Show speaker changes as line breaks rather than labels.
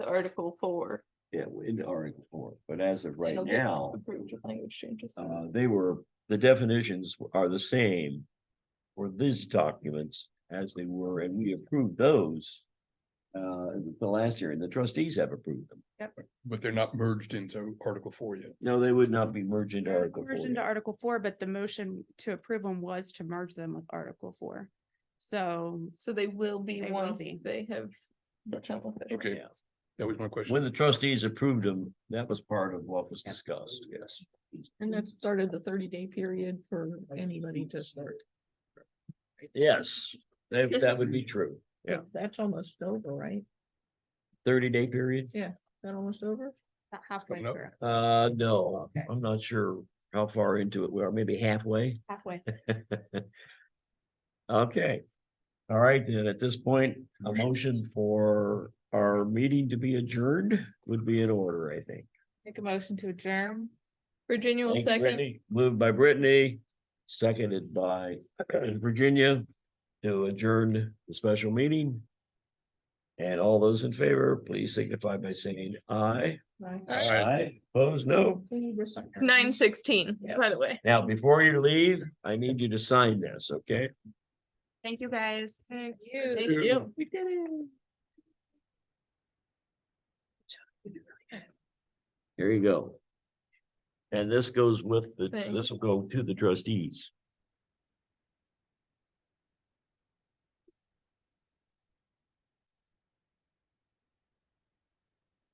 Article four.
Yeah, into Article four, but as of right
It'll get
now,
Approved with language changes.
uh, they were, the definitions are the same. For these documents as they were, and we approved those. Uh, the last year, and the trustees have approved them.
but they're not merged into Article Four yet.
No, they would not be merged into Article four.
Version to Article four, but the motion to approve them was to merge them with Article four. So
So they will be
They will
once
be.
they have become official.
Okay,
Yeah.
that was my question.
When the trustees approved them, that was part of what was discussed, yes.
And that started the thirty day period for anybody to start.
Yes, that, that would be true. Yeah.
So That's almost over, right?
Thirty day period?
That almost over?
about halfway
coming up.
through,
Uh, no,
Okay.
I'm not sure how far into it we are, maybe halfway.
halfway.
Okay. All right, then at this point, a
Motion.
motion for our meeting to be adjourned would be in order, I think.
Make a motion to adjourn.
Virginia will
Thank you,
second.
Brittany. Moved by Brittany, seconded by Virginia to adjourn the special meeting. And all those in favor, please signify by saying aye.
Aye.
Opposed, no.
It's nine sixteen, by the way.
Now, before you leave, I need you to sign this, okay?
Thank you, guys. Thanks.
Thank
you.
you. We did it.
Here you go. And this goes with the,
Thank
this will go to the trustees.